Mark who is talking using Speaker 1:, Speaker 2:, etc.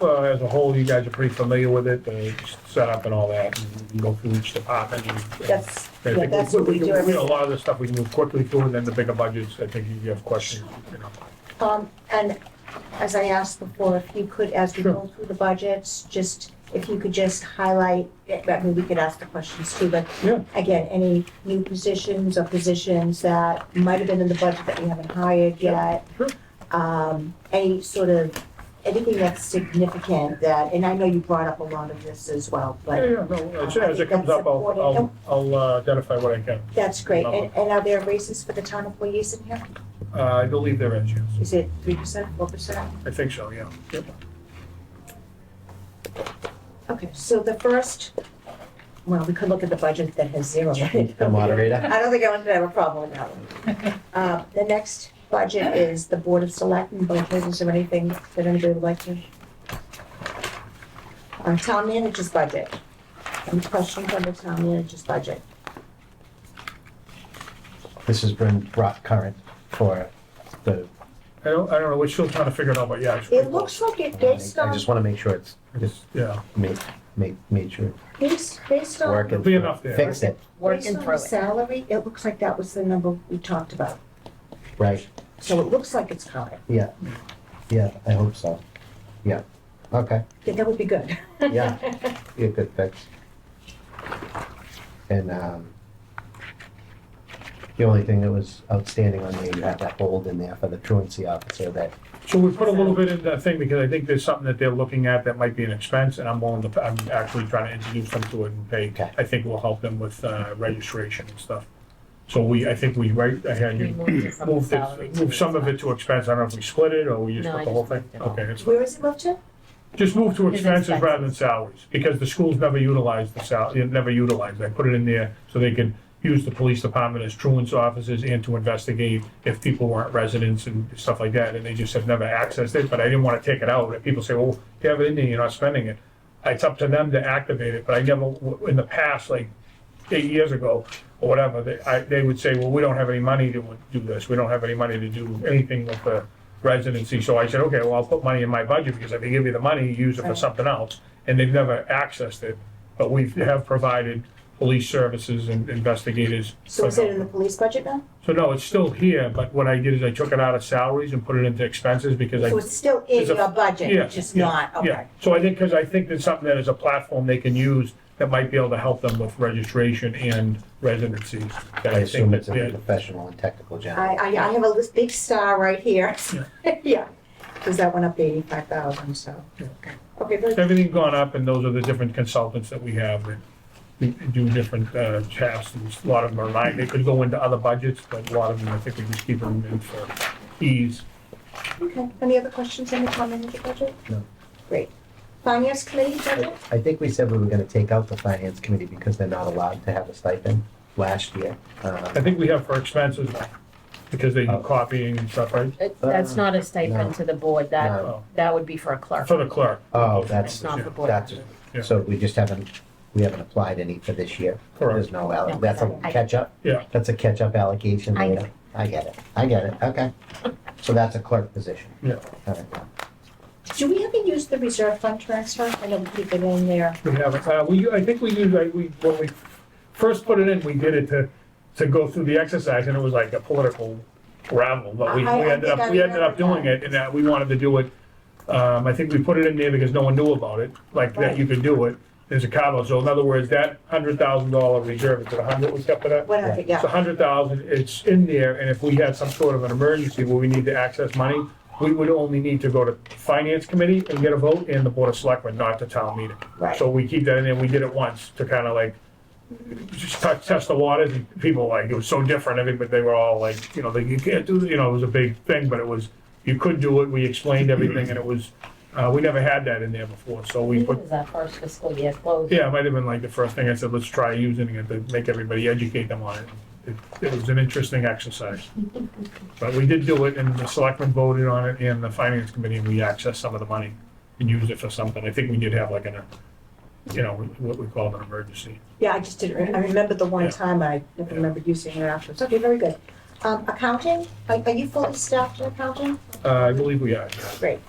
Speaker 1: uh, as a whole, you guys are pretty familiar with it, the setup and all that, and you go through each department. and-
Speaker 2: That's,
Speaker 1: I think
Speaker 2: that's what we do
Speaker 1: can-
Speaker 2: every.
Speaker 1: A lot of the stuff we can move quickly through, and then the bigger budgets, I think you have questions, you know.
Speaker 2: Um, and as I asked before, if you could, as we
Speaker 1: Sure.
Speaker 2: go through the budgets, just, if you could just highlight, I mean, we could ask the questions too, but
Speaker 1: Yeah.
Speaker 2: again, any new positions or positions that might have been in the budget that we haven't hired yet.
Speaker 1: Sure.
Speaker 2: Um, any sort of, anything that's significant that, and I know you brought up a lot of this as well,
Speaker 1: Yeah,
Speaker 2: but
Speaker 1: yeah, no, as as it comes up, I'll, I'll, I'll uh, identify what I can.
Speaker 2: that's great. And, and are there raises for the town employees in here?
Speaker 1: Uh, I believe there is, yes.
Speaker 2: Is it three percent, four percent?
Speaker 1: I think so, yeah. Yep.
Speaker 2: Okay, so the first, well, we could look at the budget that has zero. in it.
Speaker 3: The moderator.
Speaker 2: I don't think I want to have a problem with that one. Uh, The next budget is the Board of Selectmen budget. Is there anything that anybody would like to? Uh, Town manager's budget. Any questions on the town manager's budget?
Speaker 3: This has been brought current for the.
Speaker 1: I don't, I don't know, we're still trying to figure it out, but yeah. it's pretty
Speaker 2: It looks like
Speaker 3: I
Speaker 2: it based on,
Speaker 3: just want to make sure it's,
Speaker 1: close.
Speaker 3: it's
Speaker 1: It's- Yeah,
Speaker 3: made, made, made sure
Speaker 2: based, based
Speaker 3: it's
Speaker 2: on,
Speaker 3: working.
Speaker 1: Be enough there.
Speaker 3: Fix it,
Speaker 2: based
Speaker 4: working
Speaker 2: on the
Speaker 4: through it.
Speaker 2: salary, it looks like that was the number we talked about.
Speaker 3: right?
Speaker 2: So it looks like it's current.
Speaker 3: Yeah. Yeah, I hope so. Yeah. Okay.
Speaker 2: Yeah, That would be good.
Speaker 3: Yeah. Be a good fix. And, um, the only thing that was outstanding on there, you had that hold in there for the truancy officer that,
Speaker 1: so we put a little bit in that thing because I think there's something that they're looking at that might be an expense and I'm willing to, I'm actually trying to introduce them to it and pay.
Speaker 3: Okay.
Speaker 1: I think will help them with, uh, registration and stuff. So we, I think we, right, I had
Speaker 4: We
Speaker 1: you
Speaker 4: moved it from
Speaker 1: moved
Speaker 4: salary
Speaker 1: it,
Speaker 4: to
Speaker 1: moved some of it
Speaker 4: expense.
Speaker 1: to expense. I don't know if we split it or we just
Speaker 4: No,
Speaker 1: put
Speaker 4: I
Speaker 1: the whole
Speaker 4: just
Speaker 1: thing.
Speaker 4: moved it all.
Speaker 1: Okay, it's,
Speaker 2: Where is it moved to?
Speaker 1: just move to
Speaker 4: It's
Speaker 1: expenses rather than
Speaker 4: expenses.
Speaker 1: salaries because the schools never utilized the sal, it never utilized. I put it in there so they could use the police department as truant's offices and to investigate if people weren't residents and stuff like that, and they just have never accessed it, but I didn't wanna take it out, and people say, well, you have it in there, you're not spending it. It's up to them to activate it, but I never, in the past, like, eight years ago, or whatever, they, I, they would say, well, we don't have any money to do this, we don't have any money to do anything with the residency, so I said, okay, well, I'll put money in my budget, because if they give you the money, you use it for
Speaker 2: Right.
Speaker 1: something else, and they've never accessed it, but we have provided police services and investigators.
Speaker 2: So is it in the police budget now?
Speaker 1: So no, it's still here, but what I did is I took it out of salaries and put it into expenses because I.
Speaker 2: So it's still in
Speaker 1: It's a-
Speaker 2: your budget,
Speaker 1: Yeah,
Speaker 2: it's just
Speaker 1: yeah,
Speaker 2: not,
Speaker 1: Yeah,
Speaker 2: okay.
Speaker 1: so I think, because I think there's something that is a platform they can use that might be able to help them with registration and residency. that
Speaker 3: I
Speaker 1: think
Speaker 3: assume
Speaker 1: that
Speaker 3: it's a
Speaker 1: they're-
Speaker 3: professional and technical
Speaker 2: I,
Speaker 3: gentleman.
Speaker 2: I, I have a lis- big star right here. Yeah, because that went up to eighty-five thousand, so. Okay, very good.
Speaker 1: Everything's gone up and those are the different consultants that we have that do different uh, tasks. And A lot of them are mine, they could go into other budgets, but a lot of them, I think we just keep them in for ease.
Speaker 2: okay. Any other questions on the town manager budget?
Speaker 3: No.
Speaker 2: Great. Finance committee budget?
Speaker 3: I think we said we were gonna take out the finance committee because they're not allowed to have a stipend last year. Um,
Speaker 1: I think we have for expenses, because
Speaker 3: Oh.
Speaker 1: they do copying and stuff, right?
Speaker 4: It- That's not a stipend to the board, that,
Speaker 3: No.
Speaker 4: that would be for a clerk.
Speaker 1: For the clerk.
Speaker 3: Uh, Oh,
Speaker 4: It's
Speaker 3: that's,
Speaker 4: not the board.
Speaker 3: that's,
Speaker 1: Yeah.
Speaker 3: so we just haven't, we haven't applied any for this year. There's
Speaker 1: Correct.
Speaker 3: no, alloc- that's a
Speaker 4: I-
Speaker 3: catch-up?
Speaker 1: Yeah.
Speaker 3: That's a catch-up allocation
Speaker 4: I
Speaker 3: later. I get it, I get it, okay. So that's a clerk position.
Speaker 1: Yeah.
Speaker 3: All right.
Speaker 2: Do we ever use the reserve fund transfer? I know we keep it in there.
Speaker 1: We haven't, uh, we, I think we used, like, we, when we first put it in, we did it to, to go through the exercise, and it was like a political gravel, but we, we
Speaker 2: I- I
Speaker 1: ended
Speaker 2: think
Speaker 1: up,
Speaker 2: I
Speaker 1: we ended up
Speaker 2: remember
Speaker 1: doing
Speaker 2: that.
Speaker 1: it, and that we wanted to do it. Um, I think we put it in there because no one knew about it, like, that you could do it, there's a Cabo, so in other words, that hundred thousand dollar reserve, is it a hundred we kept for that?
Speaker 2: What, happened?
Speaker 1: It's a
Speaker 2: yeah,
Speaker 1: hundred thousand, it's in there, and if we had some sort of an emergency where we need to access money, we would only need to go to finance committee and get a vote, and the board of selectmen, not the town meeting.
Speaker 2: Right.
Speaker 1: So we keep that in there, we did it once to kind of like, just t- test the waters, and people like, it was so different, I think, but they were all like, you know, they, you can't do, you know, it was a big thing, but it was, you could do it, we explained everything, and it was, uh, we never had that in there before, so we
Speaker 2: Mm-hmm.
Speaker 4: It
Speaker 1: put
Speaker 4: was our first fiscal year close.
Speaker 1: yeah, it might have been like the first thing I said, let's try using it to make everybody educate them on it. It, it was an interesting exercise. But we did do it and the selectmen voted on it and the finance committee and we accessed some of the money and used it for something. I think we did have like an, uh, you know, what we called an emergency.
Speaker 2: yeah, I just didn't, re- I remembered the one
Speaker 1: Yeah.
Speaker 2: time I never
Speaker 1: Yeah.
Speaker 2: remembered using it afterwards. Okay, very good. Um, accounting, are, are you fully staffed in accounting?
Speaker 1: Uh, I believe we are.
Speaker 2: Great.